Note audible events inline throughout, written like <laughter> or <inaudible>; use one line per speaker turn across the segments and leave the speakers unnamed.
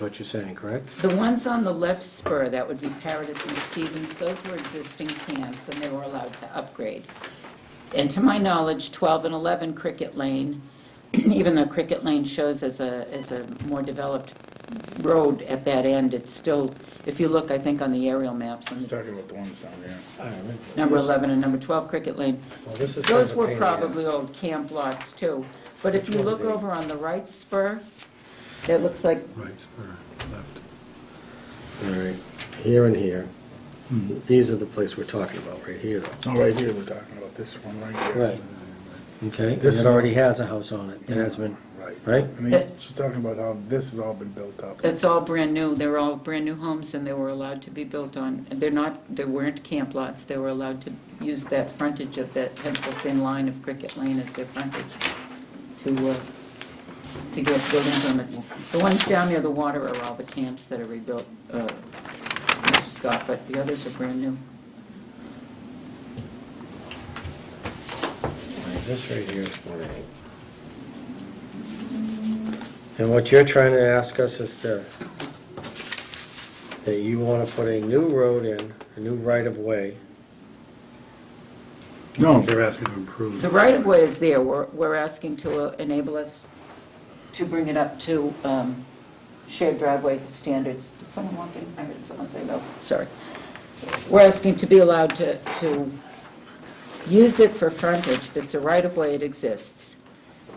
what you're saying, correct?
The ones on the left spur, that would be Paradis and Stevens, those were existing camps, and they were allowed to upgrade. And to my knowledge, 12 and 11 Cricket Lane, <clears throat> even though Cricket Lane shows as a, as a more developed road at that end, it's still, if you look, I think, on the aerial maps, on the
Talking about the ones down there.
All right.
number 11 and number 12 Cricket Lane,
Well, this is kind
those
of a
were
pain in the ass.
probably old camp lots, too. But if
Which
you
one is
look
it?
over on the right spur, it looks like
Right spur, left.
All right, here and here. These are the place we're talking about, right here though.
Oh, right here, we're talking about this one right here.
Right. Okay, and
This
it
is-
already has a house on it, it has been, right?
I mean, she's talking about how this has all been built up.
It's all brand new, they're all brand new homes and they were allowed to be built on, they're not, they weren't camp lots, they were allowed to use that frontage of that pencil thin line of Cricket Lane as their frontage to, uh, to get building permits. The ones down near the water are all the camps that are rebuilt, uh, Mr. Scott, but the others are brand new.
All right, This right here is one eight. And what you're trying to ask us is to, that you want to put a new road in, a new right-of-way.
No,
They're asking to improve.
The right-of-way is there, we're, we're asking to uh, enable us to bring it up to um, shared driveway standards. Did someone walk in? I heard someone say no, sorry. We're asking to be allowed to, to use it for frontage, but it's a right-of-way, it exists.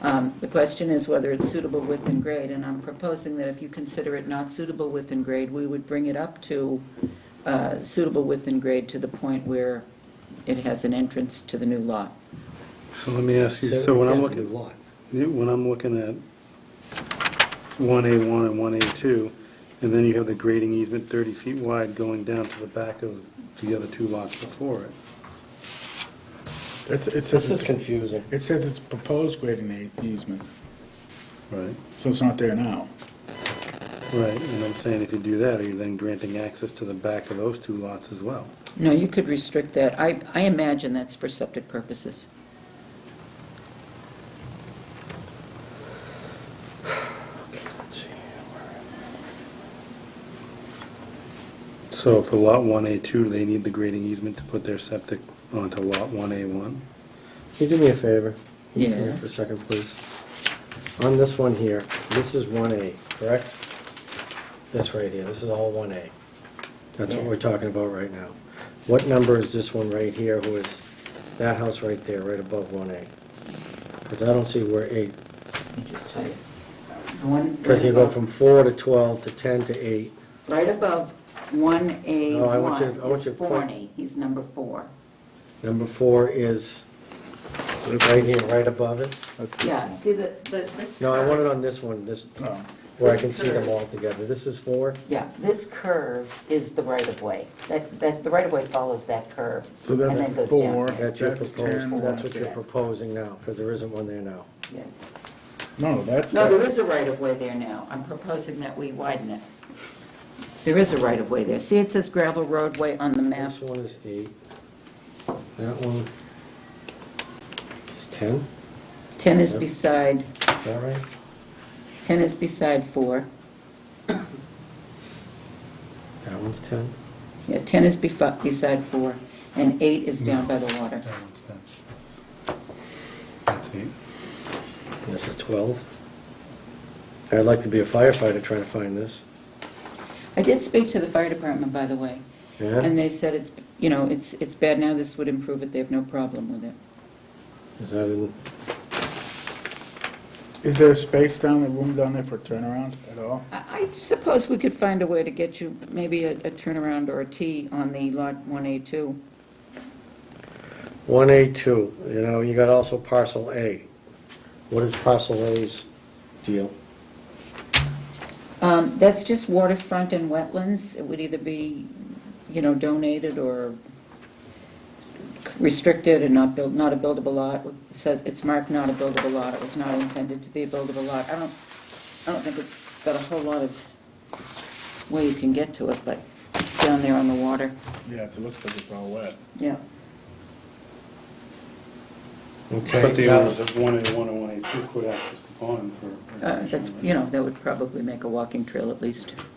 Um, The question is whether it's suitable width and grade, and I'm proposing that if you consider it not suitable width and grade, we would bring it up to uh, suitable width and grade to the point where it has an entrance to the new lot.
So let me ask you, so when I'm looking, Yeah, When I'm looking at 1A1 and 1A2, and then you have the grading easement 30 feet wide going down to the back of the other two lots before it.
it's, it says,
This is
it's-
confusing.
it says it's proposed grading e- easement,
Right.
so it's not there now.
Right, and I'm saying if you do that, are you then granting access to the back of those two lots as well?
No, you could restrict that. I, I imagine that's for septic purposes.
Let's see, where-
So for lot 1A2, they need the grading easement to put their septic onto lot 1A1?
Can you do me a favor? Can you come here
Yeah.
For a second, please. On this one here, this is one A, correct? This right here, this is all one A. That's what we're
Yes.
talking about right now. What number is this one right here, who is that house right there, right above one A? Because I don't see where eight,
Let me just tell you. The one.
because you go from four to twelve to ten to eight.
Right above one A
No, I want you- I
one
want
is
you to point-
Forney. He's number four.
Number four is right here, right above it.
That's this
Yeah,
one. Oh.
see the, the, this.
No, I
curve-
want it on this one, this,
No.
where I can see them all together. This is four?
Yeah, this curve is the right of way. That, that, the right of way follows that curve.
So
and
that's
then goes down.
four.
That's your
That's
proposed,
ten.
that's what you're
Yes.
proposing now, because there isn't one there now.
Yes.
No, that's,
No, there
that-
is a right of way there now. I'm proposing that we widen it. There is a right of way there. See, it says gravel roadway on the map.
This one is eight. That one is ten,
Ten is
Yep.
beside,
is that right?
ten is beside four.
That one's ten.
Yeah, 10 is befo- beside 4, and 8 is down by the water.
That one's done. That's eight.
And this is twelve. I'd like to be a firefighter trying to find this.
I did speak to the fire department, by the way, and
Yeah?
they said it's, you know, it's, it's bad now, this would improve it, they have no problem with it.
Is that in,
is there space down, a room down there for turnaround at all?
I I suppose we could find a way to get you maybe a a turnaround or a T on the lot 1A2.
one A two, you know, you got also parcel A. What is parcel A's deal?
Um, That's just waterfront and wetlands, it would either be, you know, donated or restricted and not built, not a buildable lot, It says it's marked not a buildable lot, it was not intended to be a buildable lot. I don't, I don't think it's got a whole lot of way you can get to it, but it's down there on the water,
Yeah, it's- it looks like it's all wet.
yeah.
Okay.
But the
now-
owners of 1A, 1A, 1A2 could access the pond for.
Uh, That's, you know, that would probably make a walking trail at least.